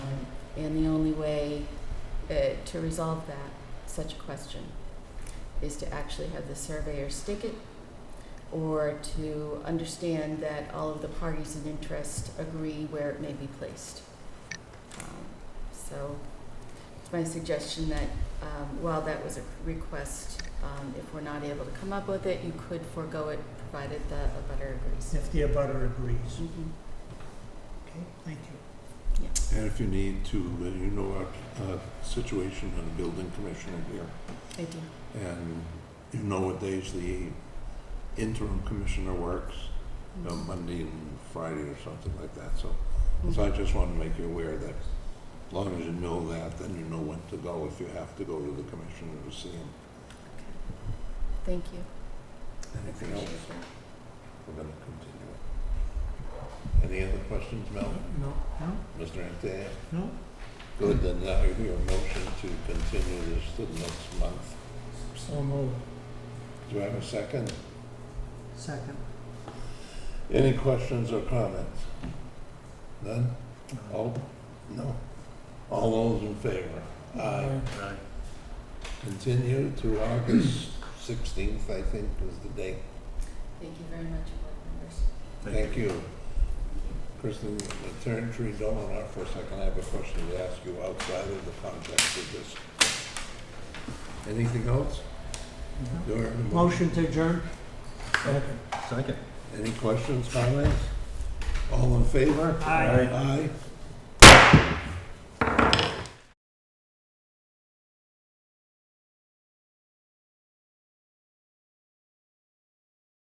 And the only way uh, to resolve that, such a question, is to actually have the surveyor stick it or to understand that all of the parties in interest agree where it may be placed. Um, So it's my suggestion that um, while that was a request, um, if we're not able to come up with it, you could forego it provided the abutter agrees. if the abutter agrees. Mhm. Mm-hmm. Okay, thank you. And if you need to, uh, you know our uh, situation on the building commissioner here, Mm-hmm. I do. and you know what days the interim commissioner works, you know, Monday and Friday or something like that, so. Mm-hmm. So I just want to make you aware that as long as you know that, then you know when to go, if you have to go to the commissioner to see him. Thank you. Anything else, Appreciate that. we're gonna continue it. Any other questions, Mel? No, no, Mr. Antaya? no, Good, then now you hear a motion to continue this to the next month. so moved. Do I have a second? Second. Any questions or comments? None? All, no? All those in favor? Aye. Continue to August sixteenth, I think, is the date. Thank you very much, board members. Thank you. Kristen, Attorney Tree Dolan, out for a second, I have a question to ask you outside of the context of this. Anything else? Mhm. Do I have a Motion to adjourn? Second. Any questions, comments? All in favor? Aye. Aye.